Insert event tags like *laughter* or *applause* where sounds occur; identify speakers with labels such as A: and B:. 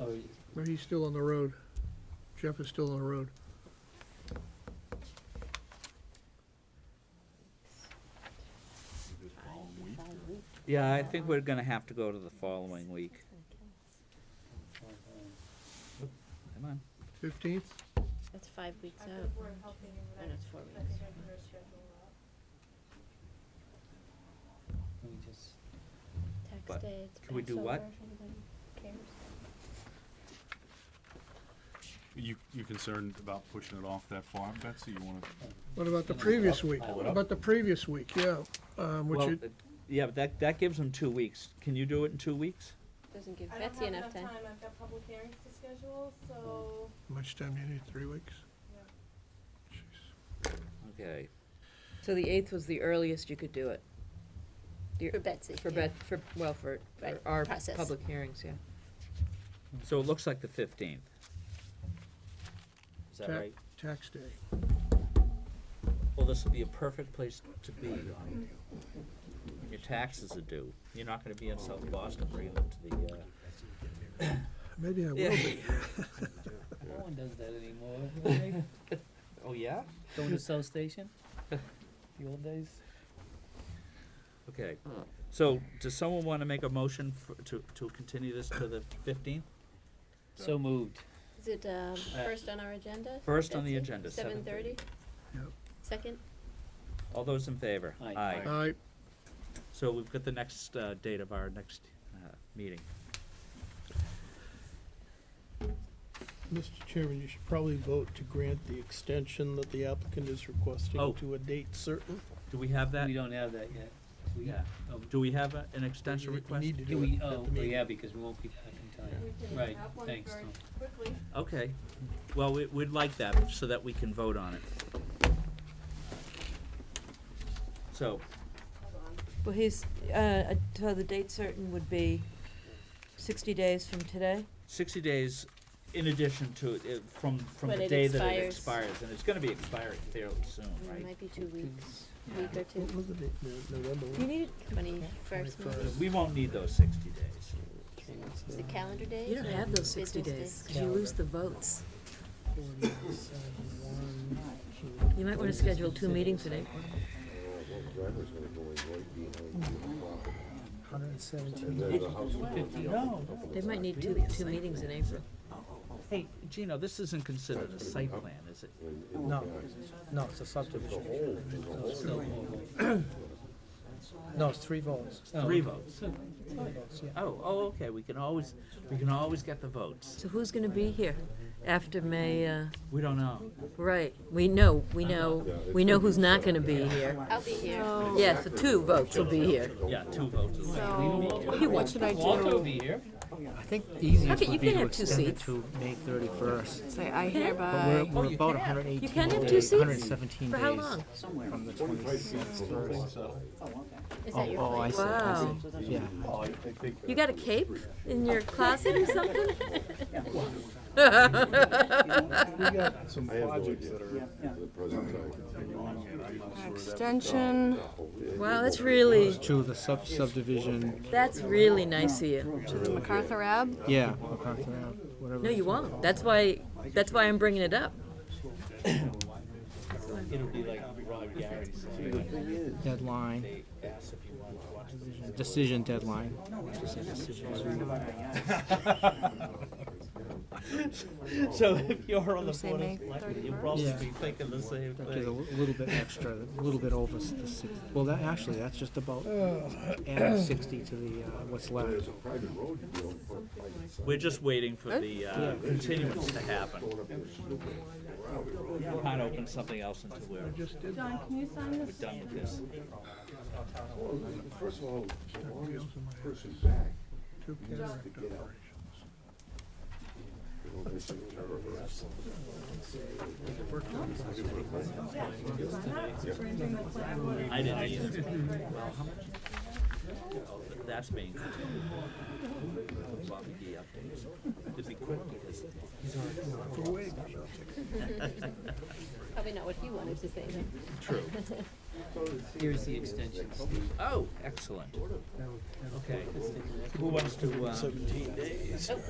A: Oh, y-
B: But he's still on the road. Jeff is still on the road.
C: Yeah, I think we're gonna have to go to the following week. Come on.
B: Fifteenth,
D: That's five weeks
E: After the
D: out.
E: Board of Health meeting,
D: I
E: then
D: know
E: I
D: it's four
E: I think
D: weeks.
E: I can go schedule up.
A: let me just,
C: But
D: Tax day, it's
C: can we do what?
D: Passover, if anybody cares.
F: You, you concerned about pushing it off that far, Betsy? You wanna?
B: what about the previous week?
A: Hold
B: What
A: up.
B: about the previous week, yeah, um, which
C: Well,
B: it,
C: it- Yeah, but that, that gives them two weeks. Can you do it in two weeks?
D: Doesn't give
E: I don't
D: Betsy
E: have
D: enough time.
E: I've got public hearings to schedule, so,
B: much time do you need, three weeks?
E: yeah.
B: Jeez.
C: Okay.
G: So the eighth was the earliest you could do it, Yeah.
D: For Betsy.
G: for
D: yeah.
G: Bet, for, well, for, for
D: Right,
G: our
D: process.
G: public hearings, yeah.
C: So it looks like the fifteenth. Is that
B: Ta-
C: right?
B: Tax day.
C: Well, this will be a perfect place to be. When your taxes are due. You're not gonna be in South Boston bringing them to the, uh.
B: Maybe I will be.
A: no one does that anymore, *laughs* right?
C: Oh, yeah?
A: Going to South Station? The old days?
C: Okay. So, does someone wanna make a motion f to, to continue this to the fifteenth?
A: So moved.
D: Is it, um, first on our agenda?
C: Uh, First on the
D: Betsy?
C: agenda,
D: Seven thirty?
C: 7:30.
B: Yep.
D: Second?
C: All those in favor?
A: Aye.
B: All right,
C: So we've got the next uh, date of our next uh, meeting.
H: Mr. Chairman, you should probably vote to grant the extension that the applicant is
C: Oh.
H: requesting to a date certain.
C: Do we have that?
A: We don't have that yet. We-
C: Yeah.
A: oh, do-
C: Do we have a- an extension
H: You- you
C: request?
H: need to
A: Do
H: do it
A: we,
H: at
A: oh,
H: the
A: well,
H: meeting.
A: yeah, because we won't be back in
E: We
A: time.
E: can
A: Right,
E: have one
A: thanks,
E: very
A: Tom.
E: Quickly.
C: Okay. Well, we- we'd like that so that we can vote on it. So,
I: Well, he's, uh, so the date certain would be sixty days from today?
C: 60 days in addition to, it- from, from
D: When
C: the
D: it
C: day that it
D: expires.
C: expires. And it's going to be expiring fairly soon,
D: Mm,
C: right?
D: Might be two weeks,
C: Yeah.
D: week or
H: What
D: two.
H: was the date, No- November?
I: You need,
D: Twenty-first, maybe.
H: 21st.
C: We won't need those 60 days.
D: Is it calendar days?
G: You don't
D: or
G: have those
D: business
G: 60 days, 'cause you lose the votes. You might want to schedule two meetings in April.
H: Hundred and seventeen.
G: They might need two, two meetings in April.
C: Hey, Gino, this isn't considered a site plan, is it?
H: No, no, it's a subdivision. No, it's three votes.
A: Oh,
C: Three votes.
H: Three votes, yeah.
C: Oh, oh, okay, we can always, we can always get the votes.
G: So who's going to be here after May, uh,
C: We don't know.
G: right, we know, we know, we know who's not going to be here.
D: I'll be here.
G: Yeah, so two votes will be here.
C: Yeah, two votes. is-
G: Hey, what should I
A: Walter will
G: do?
A: be here.
J: I think
G: How
J: easiest
G: can- you
J: would be
G: can
J: to
G: have two
J: extend it
G: seats.
J: to May thirty-first.
D: Say, I
J: We're,
D: hereby.
J: we're
C: you
J: about
C: can.
J: hundred eighteen
G: You can have two
J: days,
G: seats?
J: hundred and seventeen
G: For
J: days.
G: how long?
J: From the twenty-sixth first.
D: Is
J: Oh,
D: that your
J: oh, I see,
D: plan?
J: I
G: Wow.
J: see, yeah.
G: You got a cape in your closet or something? *laughs*
H: Some projects that are.
D: Extension.
G: Wow, that's really,
J: To the sub subdivision,
G: that's really nice of you.
D: To the MacArthur Ave?
J: yeah, MacArthur Ave, whatever.
G: No, you won't. That's why, that's why I'm bringing it up.
C: It'll be like Rob Gary said,
J: Deadline,
C: ask if you want to watch the
J: decision deadline.
C: *laughs* So if you're on the
D: Say
C: board
D: May
C: of selectmen, you'll probably
J: Yeah.
C: be thinking the same
J: That gives a
C: thing.
J: li- little bit extra, a little bit over s- the six, well, that, actually, that's just about adding sixty to the, uh, what's left.
C: We're just waiting for the uh, continuance to happen. We Can't open something else until we're
B: just did that.
E: John, can you sign this?
C: done with this.
B: Two cataract operations.
C: I didn't either. Well, how much? Oh, but That's being continued. Bobby D updates. It'd be quick because he's already.
D: Probably not what he wanted to say, though.
C: True.
D: *laughs*
A: Here's the extension, Steve. um,
C: Oh, excellent. Okay. Who wants to, uh,